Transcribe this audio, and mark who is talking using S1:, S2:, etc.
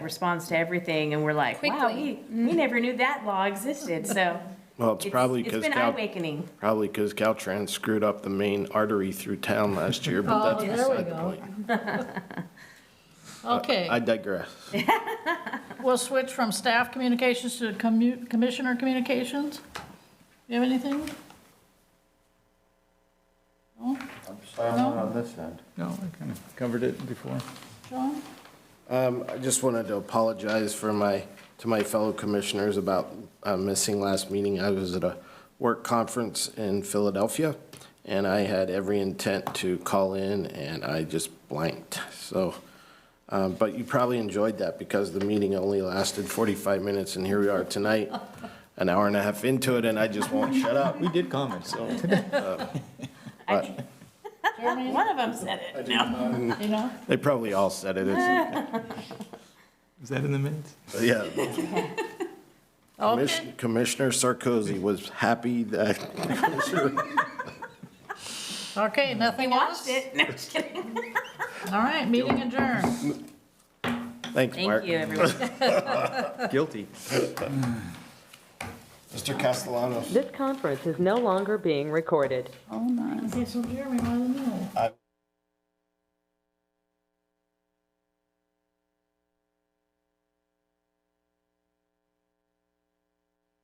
S1: responds to everything, and we're like, wow, we,
S2: Quickly.
S1: we never knew that law existed, so.
S3: Well, it's probably
S1: It's
S3: because
S1: been
S3: Cal,
S1: eye-awakening.
S3: probably 'cause Caltrans screwed up the main artery through town last year, but
S4: Oh,
S3: that's
S4: there we
S3: beside the
S4: go.
S3: point. I
S4: Okay,
S3: digress.
S4: we'll switch from staff communications to commu- commissioner communications. You have anything?
S5: Silent on this end.
S6: No, I kind of covered it before.
S4: John?
S3: Um, I just wanted to apologize for my, to my fellow commissioners about uh, missing last meeting. I was at a work conference in Philadelphia, and I had every intent to call in, and I just blanked, so. um, But you probably enjoyed that because the meeting only lasted 45 minutes, and here we are tonight, an hour and a half into it, and I just won't shut up.
S6: We did comment, so.
S4: Jeremy?
S1: One of them said it.
S4: You know?
S3: They probably all said it, it's,
S6: Is that in the minutes?
S3: yeah.
S4: Okay,
S3: Commis- Commissioner Sarkozy was happy that
S4: okay, nothing else?
S1: Watched it. No, just kidding.
S4: All right, meeting adjourned.
S3: Thanks,
S1: Thank
S3: Mark.
S1: you, everyone.
S6: Guilty.
S3: Mr. Castellanos.
S7: This conference is no longer being recorded.
S4: Okay, so Jeremy, why the no?